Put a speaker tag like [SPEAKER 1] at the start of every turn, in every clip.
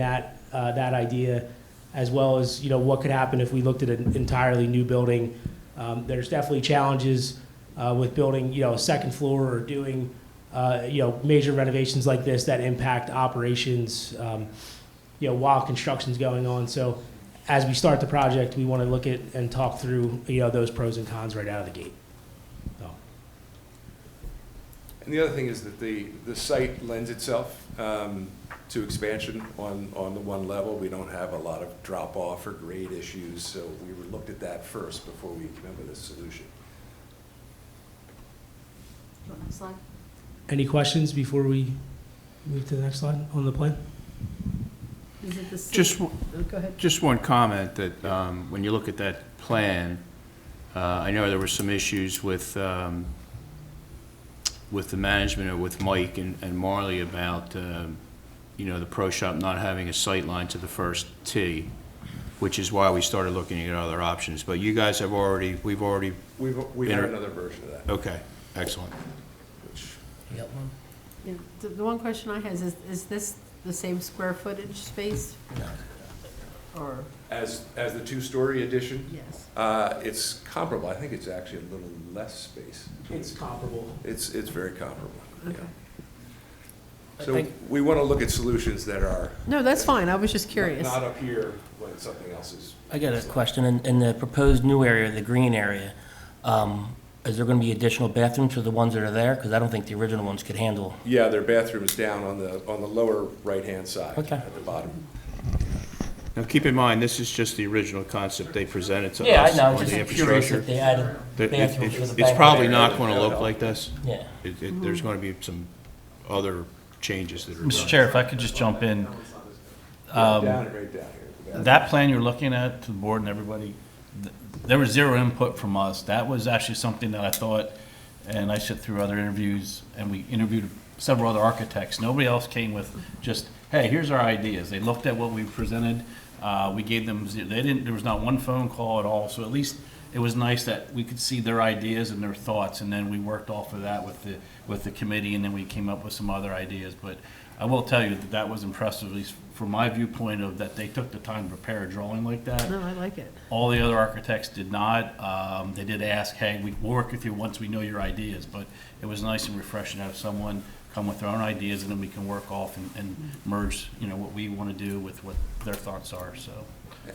[SPEAKER 1] that, uh, that idea, as well as, you know, what could happen if we looked at an entirely new building. Um, There's definitely challenges uh, with building, you know, a second floor or doing, uh, you know, major renovations like this that impact operations, um, you know, while construction's going on. So as we start the project, we want to look at and talk through, you know, those pros and cons right out of the gate. So,
[SPEAKER 2] And the other thing is that the, the site lends itself um, to expansion on, on the one level. We don't have a lot of drop-off or grade issues, so we were- looked at that first before we came up with a solution.
[SPEAKER 3] Next slide.
[SPEAKER 1] Any questions before we move to the next slide on the plan?
[SPEAKER 3] Is it the same?
[SPEAKER 4] Just, w-
[SPEAKER 3] Oh, Go ahead.
[SPEAKER 4] just one comment that, um, when you look at that plan, uh, I know there were some issues with, um, with the management or with Mike and and Marley about, um, you know, the pro shop not having a sight line to the first tee, which is why we started looking at other options. But you guys have already, we've already,
[SPEAKER 2] We've, we had
[SPEAKER 4] Inter-
[SPEAKER 2] another version of that,
[SPEAKER 4] okay, excellent.
[SPEAKER 2] which,
[SPEAKER 3] Yeah, The the one question I has is, is this the same square footage space? Or,
[SPEAKER 2] as, as the two-story addition,
[SPEAKER 3] yes.
[SPEAKER 2] uh, it's comparable. I think it's actually a little less space.
[SPEAKER 1] It's comparable.
[SPEAKER 2] It's, it's very comparable, yeah.
[SPEAKER 3] Okay.
[SPEAKER 2] So we want to look at solutions that are
[SPEAKER 3] No, that's fine. I was just curious.
[SPEAKER 2] not up here when something else is.
[SPEAKER 5] I got a question. In, in the proposed new area, the green area, um, is there gonna be additional bathrooms for the ones that are there? Because I don't think the original ones could handle.
[SPEAKER 2] Yeah, their bathroom is down on the, on the lower right-hand side.
[SPEAKER 5] Okay.
[SPEAKER 2] At the bottom.
[SPEAKER 4] Now, keep in mind, this is just the original concept they presented to us. on the infrastructure.
[SPEAKER 5] They added
[SPEAKER 4] That it-
[SPEAKER 5] bathrooms for
[SPEAKER 4] it's-
[SPEAKER 5] the
[SPEAKER 4] It's
[SPEAKER 5] banquet
[SPEAKER 4] probably
[SPEAKER 5] area.
[SPEAKER 4] not going to look like this.
[SPEAKER 5] Yeah.
[SPEAKER 4] It, it, there's going to be some other changes that are.
[SPEAKER 6] Mr. Chair, if I could just jump in, Um,
[SPEAKER 2] Down and right down here. at the back.
[SPEAKER 6] that plan you're looking at to the board and everybody, th- there was zero input from us. That was actually something that I thought, and I sit through other interviews, and we interviewed several other architects. Nobody else came with just, hey, here's our ideas. They looked at what we presented. Uh, we gave them, ze- they didn't, there was not one phone call at all. So at least it was nice that we could see their ideas and their thoughts, and then we worked off of that with the, with the committee, and then we came up with some other ideas. But I will tell you that that was impressive, at least from my viewpoint of that they took the time to prepare a drawing like that.
[SPEAKER 3] No, I like it.
[SPEAKER 6] All the other architects did not. Um, they did ask, hey, we- we'll work with you once we know your ideas, but it was nice and refreshing to have someone come with their own ideas and then we can work off and, and merge, you know, what we want to do with what their thoughts are, so.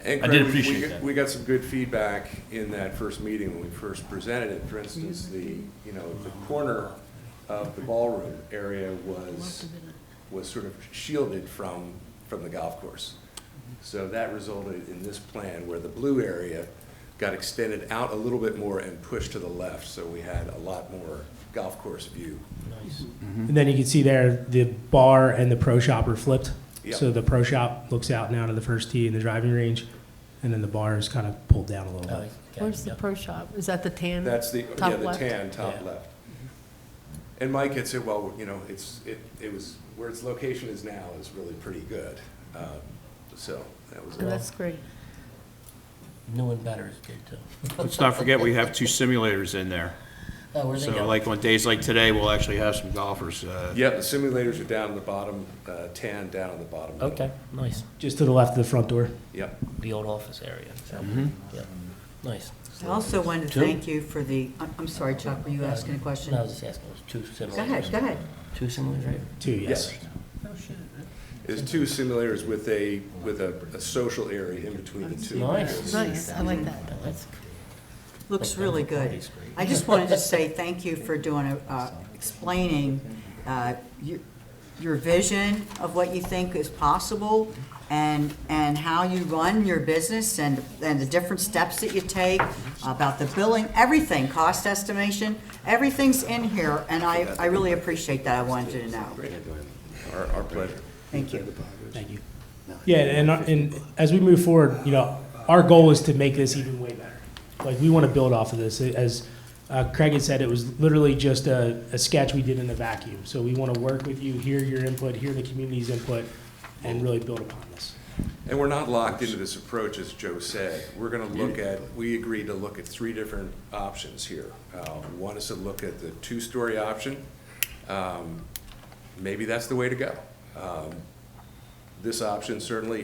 [SPEAKER 2] And
[SPEAKER 6] I
[SPEAKER 2] Craig,
[SPEAKER 6] did
[SPEAKER 2] we- we
[SPEAKER 6] appreciate
[SPEAKER 2] got-
[SPEAKER 6] that.
[SPEAKER 2] We got some good feedback in that first meeting when we first presented it. For instance, the, you know, the corner of the ballroom area was, was sort of shielded from, from the golf course. So that resulted in this plan where the blue area got extended out a little bit more and pushed to the left. So we had a lot more golf course view.
[SPEAKER 1] And then you can see there, the bar and the pro shop are flipped.
[SPEAKER 2] Yeah.
[SPEAKER 1] So the pro shop looks out now to the first tee in the driving range, and then the bar is kind of pulled down a little
[SPEAKER 5] Oh,
[SPEAKER 1] bit.
[SPEAKER 5] okay,
[SPEAKER 3] Where's the
[SPEAKER 5] yeah.
[SPEAKER 3] pro shop? Is that the tan?
[SPEAKER 2] That's the, yeah,
[SPEAKER 3] Top
[SPEAKER 2] the
[SPEAKER 3] left.
[SPEAKER 2] tan, top
[SPEAKER 5] Yeah.
[SPEAKER 2] left. And Mike had said, well, you know, it's, it, it was, where its location is now is really pretty good. Um, So that was,
[SPEAKER 3] Oh, That's great.
[SPEAKER 5] New and better is good too.
[SPEAKER 4] Let's not forget, we have two simulators in there.
[SPEAKER 5] Oh, where'd they
[SPEAKER 4] So
[SPEAKER 5] go?
[SPEAKER 4] like on days like today, we'll actually have some golfers. uh,
[SPEAKER 2] yeah, the simulators are down in the bottom, uh, tan down in the bottom. middle.
[SPEAKER 5] Okay, nice.
[SPEAKER 1] Just to the left of the front door.
[SPEAKER 2] Yep.
[SPEAKER 5] The old office area. so,
[SPEAKER 4] Mm-hmm.
[SPEAKER 5] yeah. Nice.
[SPEAKER 7] I also want to
[SPEAKER 5] Two?
[SPEAKER 7] thank you for the, I'm- I'm sorry, Chuck, were you asking a question?
[SPEAKER 5] No, I was just asking, there's two similar.
[SPEAKER 7] Go ahead, go ahead.
[SPEAKER 5] Two similar, right?
[SPEAKER 1] Two, yes.
[SPEAKER 2] There's two simulators with a, with a, a social area in between the two.
[SPEAKER 5] Nice.
[SPEAKER 3] Nice, I like that.
[SPEAKER 5] That's cool.
[SPEAKER 7] Looks really good. I just wanted to say thank you for doing, a- uh, explaining uh, your your vision of what you think is possible and, and how you run your business and, and the different steps that you take about the billing, everything, cost estimation, everything's in here, and I, I really appreciate that. I wanted you to know.
[SPEAKER 2] Our, our pleasure.
[SPEAKER 7] Thank you.
[SPEAKER 1] Thank you. Yeah, and, and as we move forward, you know, our goal is to make this even way better. Like, we want to build off of this. As uh, Craig had said, it was literally just a, a sketch we did in a vacuum. So we want to work with you, hear your input, hear the community's input, and really build upon this.
[SPEAKER 2] And we're not locked into this approach, as Joe said. We're going to look at, we agreed to look at three different options here. Uh, One is to look at the two-story option. Um, Maybe that's the way to go. Um, This option certainly